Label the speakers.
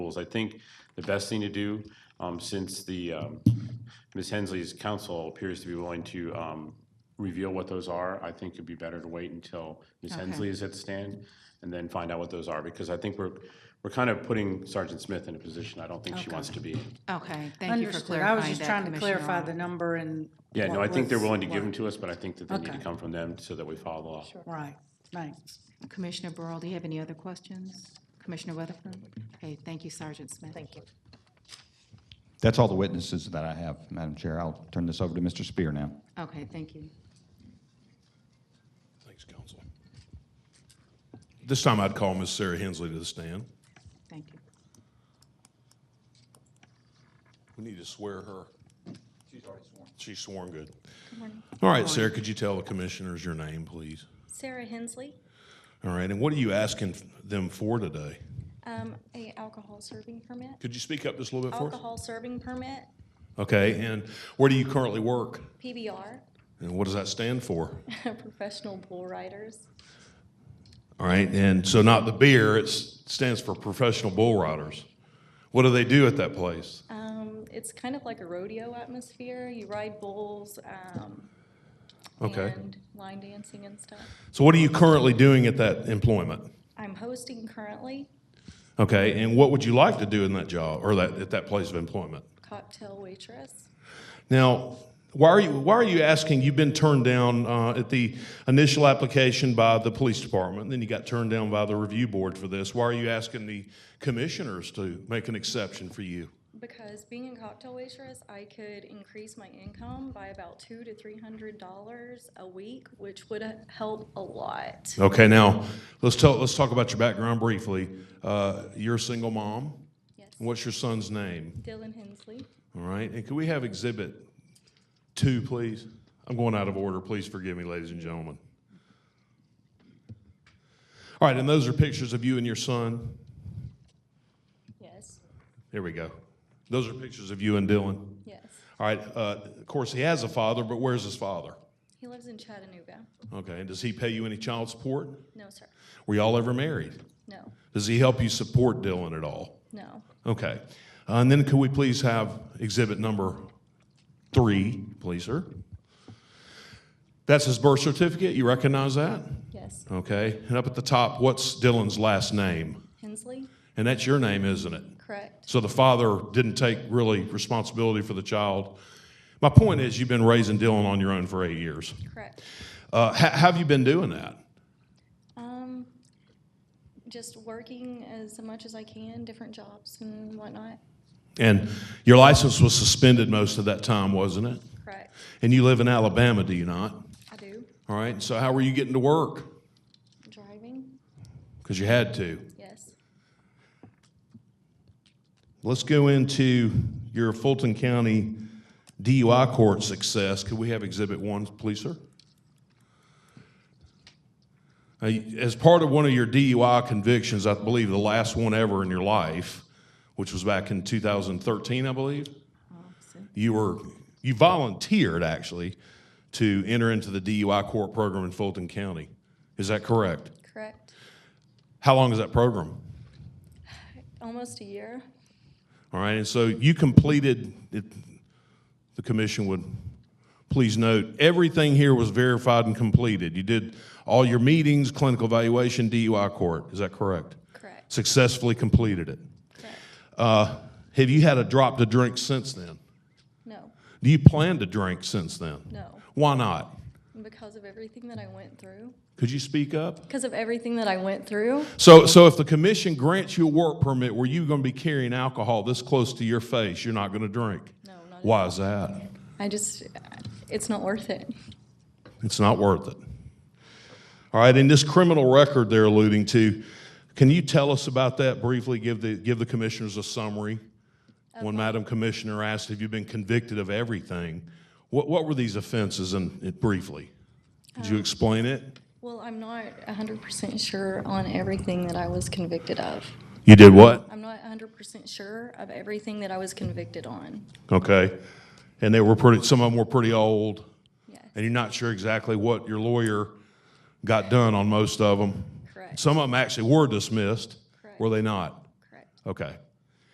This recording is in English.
Speaker 1: goals. I think the best thing to do, um, since the, um, Ms. Hensley's counsel appears to be willing to um, reveal what those are, I think it'd be better to wait until Ms.
Speaker 2: Okay.
Speaker 1: Hensley is at the stand and then find out what those are, because I think we're, we're kind of putting Sergeant Smith in a position I don't think she wants to be in.
Speaker 2: Okay, thank you for
Speaker 3: Understood.
Speaker 2: clarifying
Speaker 3: I was just
Speaker 2: that,
Speaker 3: trying to
Speaker 2: Commissioner
Speaker 3: clarify
Speaker 2: Arnold.
Speaker 3: the number and.
Speaker 1: Yeah, no, I
Speaker 3: what
Speaker 1: think they're
Speaker 3: was-
Speaker 1: willing to give them to us, but I think that they need to
Speaker 3: Okay.
Speaker 1: come from them so that we follow the law.
Speaker 3: Right, thanks.
Speaker 2: Commissioner Burrow, do you have any other questions? Commissioner Weatherford? Okay, thank you, Sergeant Smith. Thank you.
Speaker 4: That's all the witnesses that I have, Madam Chair. I'll turn this over to Mr. Spear now.
Speaker 2: Okay, thank you.
Speaker 5: Thanks, counsel. This time I'd call Miss Sarah Hensley to the stand.
Speaker 2: Thank you.
Speaker 5: We need to swear her. She's already sworn. She's sworn good. All right, Sarah, could you tell the commissioners your name, please?
Speaker 6: Sarah Hensley,
Speaker 5: All right, and what are you asking them for today?
Speaker 6: um, a alcohol serving permit.
Speaker 5: Could you speak up just a little bit for us?
Speaker 6: Alcohol serving permit,
Speaker 5: Okay, and where do you currently work?
Speaker 6: PBR,
Speaker 5: And what does that stand for?
Speaker 6: professional bull riders.
Speaker 5: All right, and so not the beer, it's- it stands for professional bull riders. What do they do at that place?
Speaker 6: Um, it's kind of like a rodeo atmosphere. You ride bulls, um,
Speaker 5: Okay.
Speaker 6: and line dancing and stuff.
Speaker 5: So what are you currently doing at that employment?
Speaker 6: I'm hosting currently
Speaker 5: Okay, and what would you like to do in that job or that at that place of employment?
Speaker 6: cocktail waitress.
Speaker 5: Now, why are you why are you asking? You've been turned down uh, at the initial application by the police department, then you got turned down by the review board for this. Why are you asking the commissioners to make an exception for you?
Speaker 6: Because being a cocktail waitress, I could increase my income by about two to three hundred dollars a week, which would uh, help a lot.
Speaker 5: Okay, now let's tell let's talk about your background briefly. Uh, you're a single mom.
Speaker 6: Yes.
Speaker 5: What's your son's name?
Speaker 6: Dylan Hensley.
Speaker 5: All right, and can we have Exhibit Two, please? I'm going out of order. Please forgive me, ladies and gentlemen. All right, and those are pictures of you and your son.
Speaker 6: Yes.
Speaker 5: There we go. Those are pictures of you and Dylan.
Speaker 6: Yes.
Speaker 5: All right, uh, of course, he has a father, but where's his father?
Speaker 6: He lives in Chattanooga.
Speaker 5: Okay, and does he pay you any child support?
Speaker 6: No, sir.
Speaker 5: Were y'all ever married?
Speaker 6: No,
Speaker 5: Does he help you support Dylan at all?
Speaker 6: no.
Speaker 5: Okay. Uh, and then could we please have exhibit number three, please, sir? That's his birth certificate. You recognize that?
Speaker 6: Yes.
Speaker 5: Okay. And up at the top, what's Dylan's last name?
Speaker 6: Hensley?
Speaker 5: And that's your name, isn't it?
Speaker 6: Correct.
Speaker 5: So the father didn't take really responsibility for the child. My point is, you've been raising Dylan on your own for eight years.
Speaker 6: Correct.
Speaker 5: Uh, ha- have you been doing that?
Speaker 6: Um, just working as much as I can, different jobs and whatnot.
Speaker 5: And your license was suspended most of that time, wasn't it?
Speaker 6: Correct.
Speaker 5: And you live in Alabama, do you not?
Speaker 6: I do.
Speaker 5: All right. So how were you getting to work?
Speaker 6: Driving?
Speaker 5: Because you had to.
Speaker 6: Yes.
Speaker 5: Let's go into your Fulton County DUI court success. Could we have Exhibit One, please, sir? Uh, As part of one of your DUI convictions, I believe the last one ever in your life, which was back in 2013, I believe, you were you volunteered actually to enter into the DUI court program in Fulton County. Is that correct?
Speaker 6: Correct.
Speaker 5: How long is that program?
Speaker 6: Almost a year.
Speaker 5: All right, and so you completed, it- the commission would please note, everything here was verified and completed. You did all your meetings, clinical evaluation, DUI court, is that correct?
Speaker 6: Correct.
Speaker 5: Successfully completed it.
Speaker 6: Correct.
Speaker 5: Uh, Have you had a drop to drink since then?
Speaker 6: No,
Speaker 5: Do you plan to drink since then?
Speaker 6: no.
Speaker 5: Why not?
Speaker 6: Because of everything that I went through.
Speaker 5: Could you speak up?
Speaker 6: Because of everything that I went through.
Speaker 5: So, so if the commission grants you a work permit where you're going to be carrying alcohol this close to your face, you're not going to drink?
Speaker 6: No, not at
Speaker 5: Why is that?
Speaker 6: I just, it's not worth it.
Speaker 5: It's not worth it. All right, and this criminal record they're alluding to, can you tell us about that briefly? Give the, give the commissioners a summary. When Madam Commissioner asked, have you been convicted of everything? What, what were these offenses and, it- briefly? Could
Speaker 6: Um,
Speaker 5: you explain it?
Speaker 6: Well, I'm not 100% sure on everything that I was convicted of.
Speaker 5: You did what?
Speaker 6: I'm not 100% sure of everything that I was convicted on.
Speaker 5: Okay. And they were pretty, some of them were pretty old, and
Speaker 6: Yes,
Speaker 5: you're not sure exactly what your lawyer got done on most of them.
Speaker 6: Correct.
Speaker 5: Some of them actually were dismissed, were
Speaker 6: Correct.
Speaker 5: they not?
Speaker 6: correct.
Speaker 5: Okay.